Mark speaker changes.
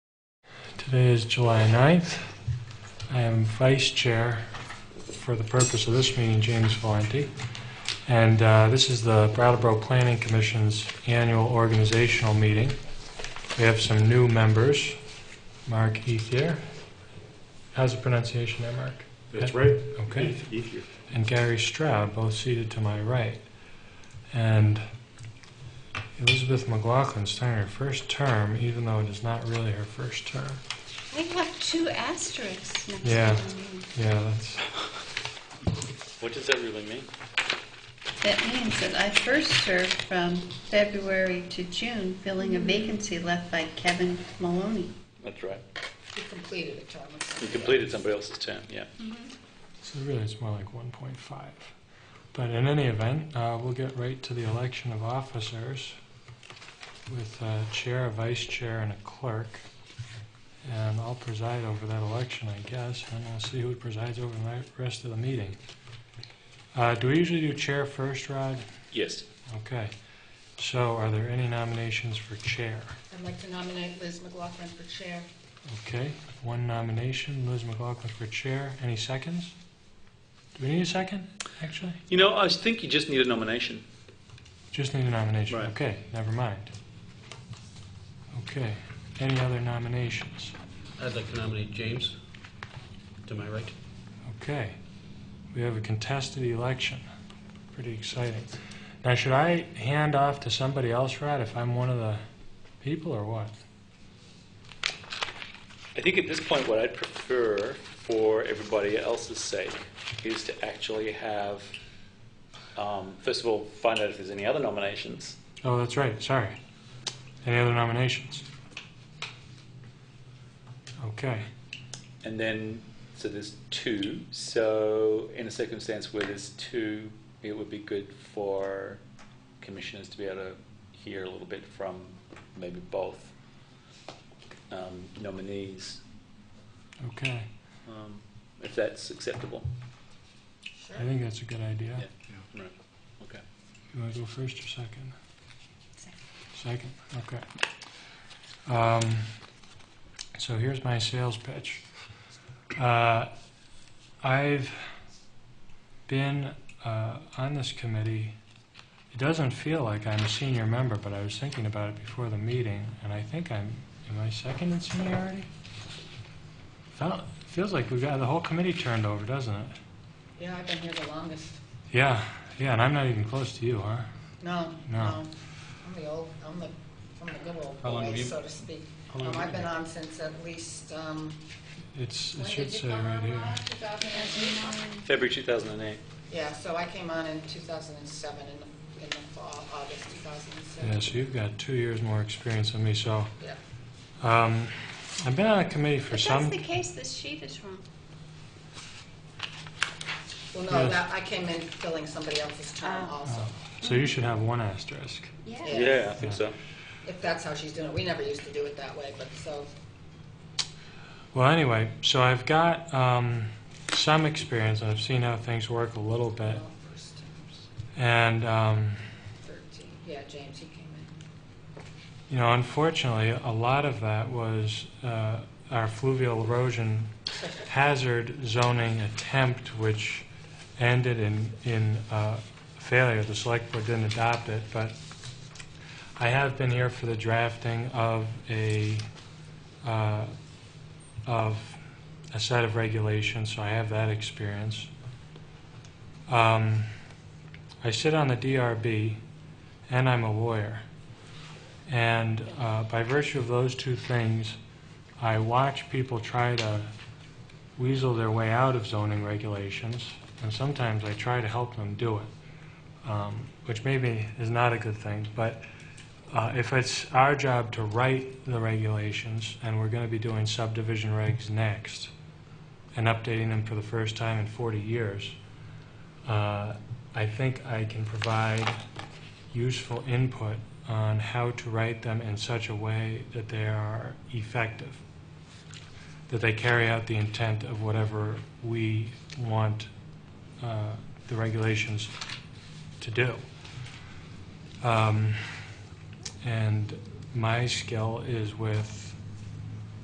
Speaker 1: Today is July 9th. I am vice chair for the purpose of this meeting, James Valenti. And uh, this is the Brattleboro Planning Commission's annual organizational meeting. We have some new members. Mark Ethier. How's the pronunciation there, Mark?
Speaker 2: That's right.
Speaker 1: Okay.
Speaker 2: Eith- Ethier.
Speaker 1: and Gary Stroud, both seated to my right. And Elizabeth McLaughlin starting her first term, even though it is not really her first term.
Speaker 3: We have two asterisks next
Speaker 1: Yeah.
Speaker 3: to the name.
Speaker 1: Yeah, that's,
Speaker 4: What does that really mean?
Speaker 3: That means that I first served from February to June, filling a vacancy left by Kevin Maloney.
Speaker 4: That's right.
Speaker 5: You completed a term.
Speaker 4: You completed somebody else's term, yeah.
Speaker 1: so really it's more like 1.5. But in any event, uh, we'll get right to the election of officers with a chair, a vice chair, and a clerk. And I'll preside over that election, I guess, and we'll see who presides over the rest of the meeting. Uh, Do we usually do chair first, Rod?
Speaker 4: Yes.
Speaker 1: Okay, so are there any nominations for chair?
Speaker 5: I'd like to nominate Liz McLaughlin for chair.
Speaker 1: Okay, one nomination, Liz McLaughlin for chair. Any seconds? Do we need a second, actually?
Speaker 4: You know, I think you just need a nomination.
Speaker 1: Just need a nomination.
Speaker 4: Right.
Speaker 1: Okay, never mind. Okay, any other nominations?
Speaker 6: I'd like to nominate James, to my right.
Speaker 1: Okay, we have a contested election. Pretty exciting. Now, should I hand off to somebody else, Rod, if I'm one of the people, or what?
Speaker 4: I think at this point, what I'd prefer for everybody else's sake is to actually have, um, first of all, find out if there's any other nominations.
Speaker 1: Oh, that's right, sorry. Any other nominations? Okay,
Speaker 4: And then, so there's two. So, in a circumstance where there's two, it would be good for commissioners to be able to hear a little bit from maybe both um, nominees,
Speaker 1: okay.
Speaker 4: um, if that's acceptable.
Speaker 5: Sure.
Speaker 1: I think that's a good idea.
Speaker 4: Yeah. Right. Okay.
Speaker 1: You want to go first or second?
Speaker 3: Second.
Speaker 1: Second, okay. Um, So here's my sales pitch. Uh, I've been uh, on this committee, it doesn't feel like I'm a senior member, but I was thinking about it before the meeting, and I think I'm, am I second in seniority? Felt- Feels like we've got the whole committee turned over, doesn't it?
Speaker 5: Yeah, I've been here the longest.
Speaker 1: Yeah, yeah, and I'm not even close to you, huh?
Speaker 5: No,
Speaker 1: No.
Speaker 5: no. I'm the old, I'm the, I'm the good old
Speaker 6: How long have
Speaker 5: boy,
Speaker 6: you-
Speaker 5: so to speak.
Speaker 1: How long
Speaker 5: Um,
Speaker 1: have you
Speaker 5: I've been
Speaker 1: been?
Speaker 5: on since at least, um,
Speaker 1: It's, it
Speaker 5: when
Speaker 1: should
Speaker 5: did you
Speaker 1: say
Speaker 5: come
Speaker 1: right
Speaker 5: on,
Speaker 1: here.
Speaker 5: Ron? 2009?
Speaker 4: February 2008.
Speaker 5: Yeah, so I came on in 2007, in the, in the fall, August 2007.
Speaker 1: Yeah, so you've got two years more experience than me, so,
Speaker 5: Yeah.
Speaker 1: um, I've been on a committee for
Speaker 3: If
Speaker 1: some,
Speaker 3: that's the case, this sheet is wrong.
Speaker 5: Well,
Speaker 1: Yeah.
Speaker 5: no, that, I came in filling somebody else's term
Speaker 3: Oh.
Speaker 5: also,
Speaker 1: so you should have one asterisk.
Speaker 3: Yeah.
Speaker 5: Yeah.
Speaker 4: Yeah, I think so.
Speaker 5: if that's how she's doing it. We never used to do it that way, but so,
Speaker 1: Well, anyway, so I've got, um, some experience, and I've seen how things work a little bit,
Speaker 5: no, first,
Speaker 1: and, um,
Speaker 5: 13, yeah, James, he came in.
Speaker 1: You know, unfortunately, a lot of that was uh, our fluvial erosion hazard zoning attempt, which ended in, in uh, failure. The select board didn't adopt it, but I have been here for the drafting of a, uh, of a set of regulations, so I have that experience. Um, I sit on the DRB, and I'm a lawyer. And uh, by virtue of those two things, I watch people try to weasel their way out of zoning regulations, and sometimes I try to help them do it, um, which maybe is not a good thing. But uh, if it's our job to write the regulations, and we're going to be doing subdivision regs next, and updating them for the first time in 40 years, uh, I think I can provide useful input on how to write them in such a way that they are effective, that they carry out the intent of whatever we want uh, the regulations to do. Um, And my skill is with